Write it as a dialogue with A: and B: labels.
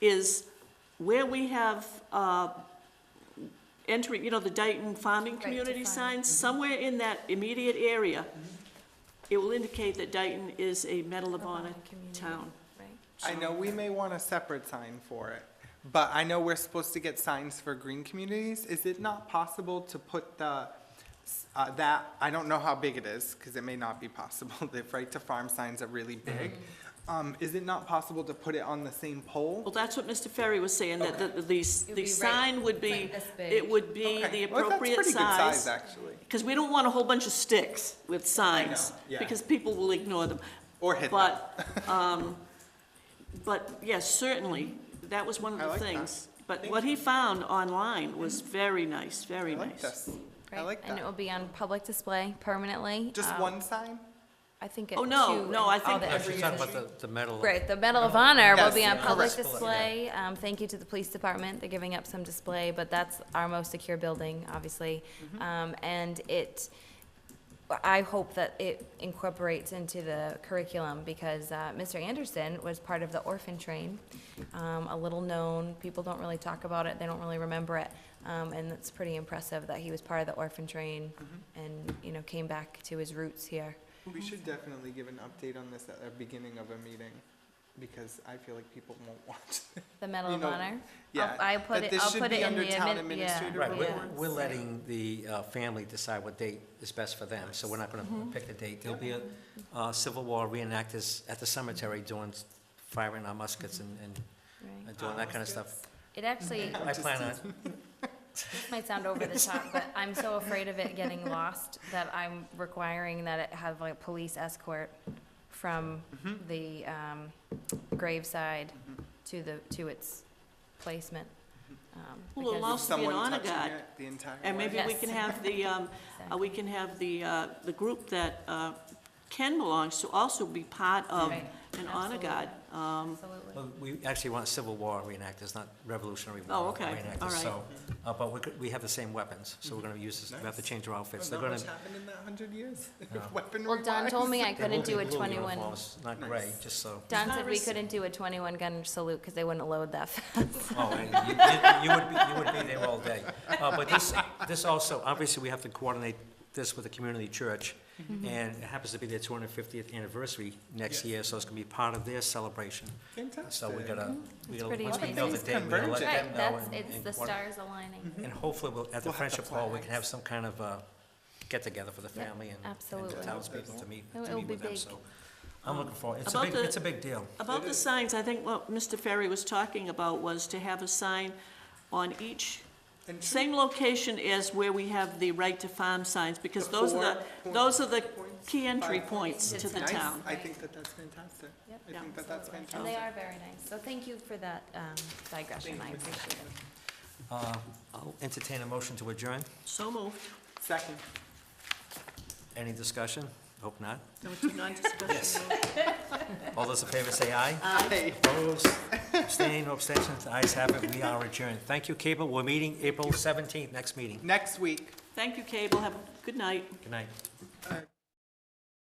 A: is where we have uh, entering, you know, the Dayton farming
B: to
A: community
B: farm.
A: signs, somewhere in that immediate area, it will indicate that Dayton is a Metalabona
B: Metalabonic Mm-hmm. community.
A: town.
B: Right.
C: I know we may want a separate sign for it, but I know we're supposed to get signs for green communities. Is it not possible to put the, uh, that, I don't know how big it is, because it may not be possible, the right to farm signs are really big. Um, is it not possible to put it on the same pole?
A: Mm-hmm. Well, that's what Mr. Ferry was saying, that the, the,
B: It would be
A: the
B: right-
A: sign would be,
B: like this big.
A: it would be the
C: Okay. Well,
A: appropriate
C: That's pretty good size,
A: size.
C: actually,
A: Because we don't want a whole bunch of sticks with signs,
C: yeah.
A: because people will ignore them.
C: or hit that.
A: But, um, but yes, certainly, that was one of
C: I
A: the
C: like that.
A: things. But
C: Thank
A: what he found online was very nice,
C: I
A: very
C: like
A: nice.
C: this. I
B: Right,
C: like
B: And it will
C: that.
B: be on public display permanently.
C: Just
B: um,
C: one sign?
B: I think. it-
A: Oh, no, no,
B: two in
A: I
B: all
A: think-
B: the
A: Yeah,
D: No,
A: she's
D: she's
B: areas.
D: talking about the, the medal.
B: Right, the Medal of Honor will
C: Yes,
B: be on
C: yeah.
B: public
D: Correct.
B: display. Um, Thank you to the police department, they're giving up some display, but that's our most secure building, obviously.
C: Mm-hmm.
B: Um, And it, I hope that it incorporates into the curriculum because uh, Mr. Anderson was part of the orphan train, um, a little known, people don't really talk about it, they don't really remember it. Um, And it's pretty impressive that he was part of the orphan train
C: Mm-hmm.
B: and, you know, came back to his roots here.
C: We
A: Mhm.
C: should definitely give an update on this at the beginning of a meeting, because I feel like people won't watch.
B: The Medal
C: You
B: of
C: know,
B: Honor?
C: Yeah,
B: I'll put
C: that
B: it-
C: this
B: I'll
C: should
B: put
C: be
B: it in
C: under
B: the
C: town
B: admin-
C: administrator
B: yeah.
D: Right,
C: report.
D: we're, we're letting the uh, family decide what date is best for them, so we're not gonna
A: Mm-hmm.
D: pick a date. There'll be a uh, Civil War reenactors at the cemetery doing, s- firing our muskets and,
A: Mm-hmm.
D: and
B: Right.
D: doing that kind of stuff.
B: It actually,
D: I plan on,
B: this might sound over the top, but I'm so afraid of it getting lost that I'm requiring that it have like a police escort from
D: Mm-hmm.
B: the um, graveside to the, to its placement.
D: Mm-hmm.
B: um,
A: Well,
B: because-
A: allow- Must be an
C: Someone
A: honor
C: touching
A: guard.
C: it The entire.
A: And
C: way.
A: maybe we can have the, um, uh, we can have the, uh, the group that, uh, Ken belongs to also be part of
B: Right,
A: an honor guard. Um,
B: Absolutely.
D: well, we actually want Civil War reenactors, not Revolutionary
A: Oh,
D: War
A: okay, all
D: reenactors,
A: right.
D: so. uh, But we could, we have the same weapons, so we're gonna use, this- we have to change our outfits. They're
C: Not
D: gonna,
C: much happened in that hundred years,
D: No.
C: weaponry
B: Well, Don told me I
D: they will
B: couldn't
D: be
B: do a
D: blue
B: 21,
D: uniforms, not
C: Nice.
D: gray, just so.
B: Don
A: Not
B: said we
A: rece-
B: couldn't do a 21 gun salute because they wouldn't load that fast.
D: Oh, and you, you- you would be, you would be there all day. Uh, but this, this also, obviously, we have to coordinate this with the community church.
B: Mm-hmm.
D: And it happens to be their two hundred fiftieth anniversary next year, so it's gonna be part of their celebration. So we gotta, we
B: Mm-hmm.
D: gotta,
B: pretty
D: once we
B: amazing.
D: know the date, we gotta
C: Convergent.
D: let them
B: Right,
D: know.
B: that's,
D: and- Mm-hmm.
B: it's
D: and
B: the
D: coordinate.
B: stars aligning.
D: And hopefully, we'll,
C: We'll
D: at the
C: have the
D: Friendship Hall, we can
C: flags.
D: have some kind of, uh, get-together for the
B: Yep,
D: family and- and the
B: absolutely.
D: townspeople to meet,
B: It'll-
D: to
B: it'll
D: meet
B: be
D: with them,
B: big.
D: so. I'm looking forward, it's a
A: About
D: big,
A: the-
D: it's a big deal.
A: About the signs, I think what Mr. Ferry was talking about was to have a sign on each
C: And two
A: Same location as where we have the right to farm signs, because those are the,
C: Four
A: those are the
C: points.
A: key entry
C: Five
A: points to
B: points.
A: the
C: nice.
A: town.
C: I think that that's fantastic.
B: Yep.
C: I think that that's fantastic.
B: And they are very nice, so thank you for that um, digression, I appreciate it.
D: Uh, I'll entertain a motion to adjourn.
A: So moved.
C: Second.
D: Any discussion? Hope not.
A: No, it's a non-discussion.
D: All those in favor say aye.
C: Hey.
D: Opposed, abstained, no abstentions, the ayes have it, we are adjourned. Thank you, Cable, we're meeting April 17th, next meeting.
C: Next week.
A: Thank you, Cable. Have a good night.
D: Good night.
C: Uh,